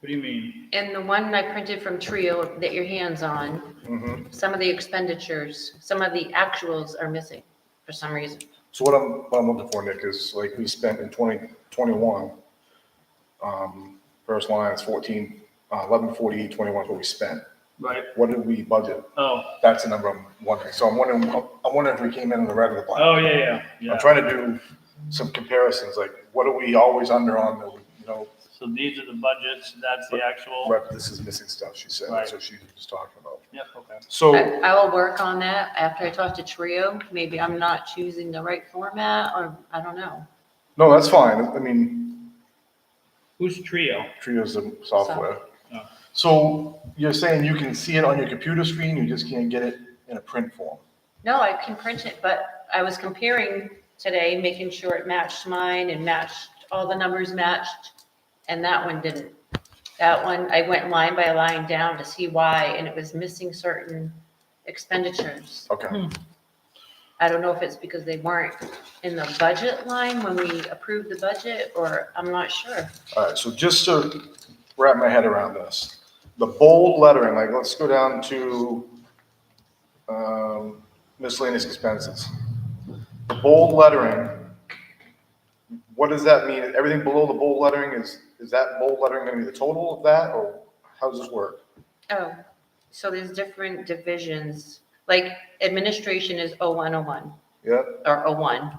What do you mean? And the one I printed from Trio that your hand's on, Mhm. some of the expenditures, some of the actuals are missing for some reason. So what I'm, what I'm looking for, Nick, is like we spent in twenty twenty-one, um, first line is fourteen, uh, eleven forty-eight, twenty-one is what we spent. Right, What did we budget? oh, That's the number I'm wondering. So I'm wondering, I'm wondering if we came in on the red or the black. oh, yeah, yeah, I'm yeah. trying to do some comparisons, like what are we always under on, the, you know, So these are the budgets, that's the actual, rep, this is missing stuff, she said, Right. so she was talking about. yep, okay. So, I I will work on that after I talk to Trio. Maybe I'm not choosing the right format or I don't know. no, that's fine. I mean, Who's Trio? Trio's the software. Oh. So you're saying you can see it on your computer screen, you just can't get it in a print form? No, I can print it, but I was comparing today, making sure it matched mine and matched, all the numbers matched, and that one didn't. That one, I went line by line down to see why, and it was missing certain expenditures. Okay, I don't know if it's because they weren't in the budget line when we approved the budget, or I'm not sure. all right, so just to wrap my head around this, the bold lettering, like, let's go down to um, miscellaneous expenses. The bold lettering, what does that mean? Everything below the bold lettering is, is that bold lettering gonna be the total of that, or how does this work? Oh, so there's different divisions, like administration is O one oh one. Yeah, or a one.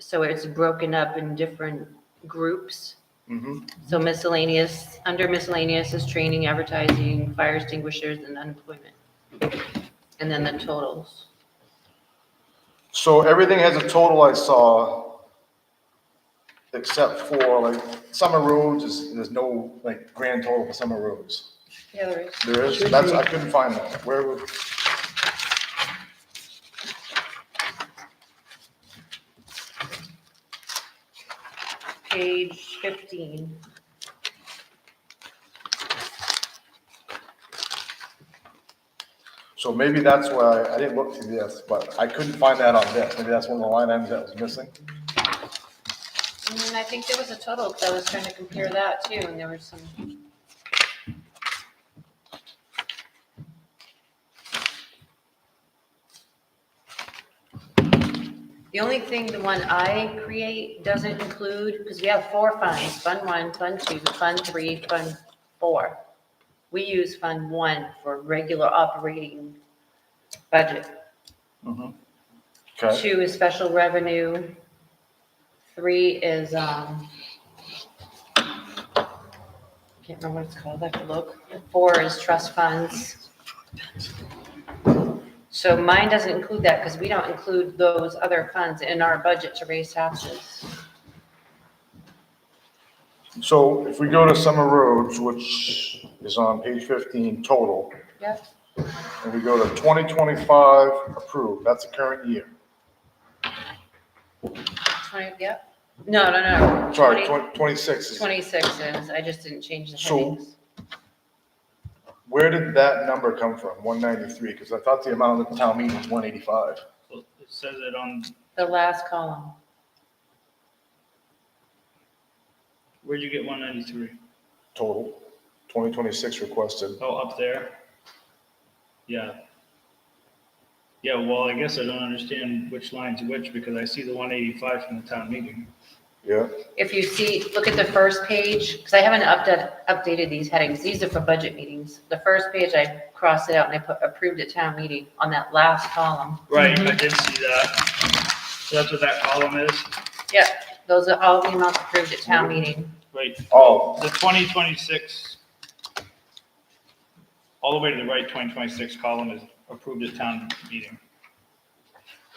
So it's broken up in different groups. mm-hmm, So miscellaneous, under miscellaneous is training, advertising, fire extinguishers, and unemployment. And then the totals. so everything has a total I saw, except for like, summer roads, is, there's no like grand total for summer roads. Yeah, there is. There is, that's, I couldn't find that, where would? Page fifteen. So maybe that's why, I didn't look through this, but I couldn't find that on this, maybe that's one of the line items that was missing. And then I think there was a total, 'cause I was trying to compare that too, and there was some. The only thing, the one I create doesn't include, because we have four funds, Fund One, Fund Two, Fund Three, Fund Four. We use Fund One for regular operating budget. Okay, Two is special revenue. Three is, um, can't remember what it's called, I have to look. Four is trust funds. So mine doesn't include that because we don't include those other funds in our budget to raise taxes. so if we go to Summer Roads, which is on page fifteen total, Yep. and we go to twenty twenty-five approved, that's the current year. Twenty, yep. No, no, no. 20 Sorry, twen- twenty-six is, Twenty-six is, I just didn't change the So- headings. where did that number come from, one ninety-three, because I thought the amount at the town meeting was one eighty-five. Well, It says it on, The last column. where'd you get one ninety-three? Total, twenty twenty-six requested, Oh, up there? Yeah. Yeah, well, I guess I don't understand which line's which, because I see the one eighty-five from the town meeting. yeah, If you see, look at the first page, because I haven't updated, updated these headings. These are for budget meetings. The first page, I crossed it out and I put approved at town meeting on that last column. Right, I did see that. So that's what that column is, Yep, those are all the amounts approved at town meeting. right, oh, the twenty twenty-six. All the way to the right, twenty twenty-six column is approved at town meeting.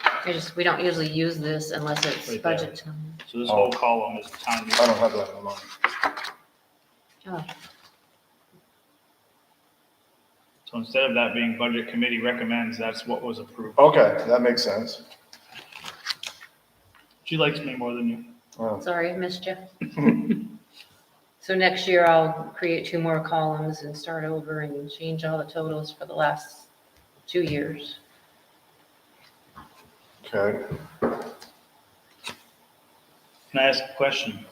I just, we don't usually use this unless it's Right there. budget time. So this Oh. whole column is town I meeting. don't have that in mind. Oh, So instead of that being budget committee recommends, that's what was approved. Okay, that makes sense. She likes me more than you. Oh. Sorry, I missed you. So next year I'll create two more columns and start over and change all the totals for the last two years. Okay, Can I ask a question?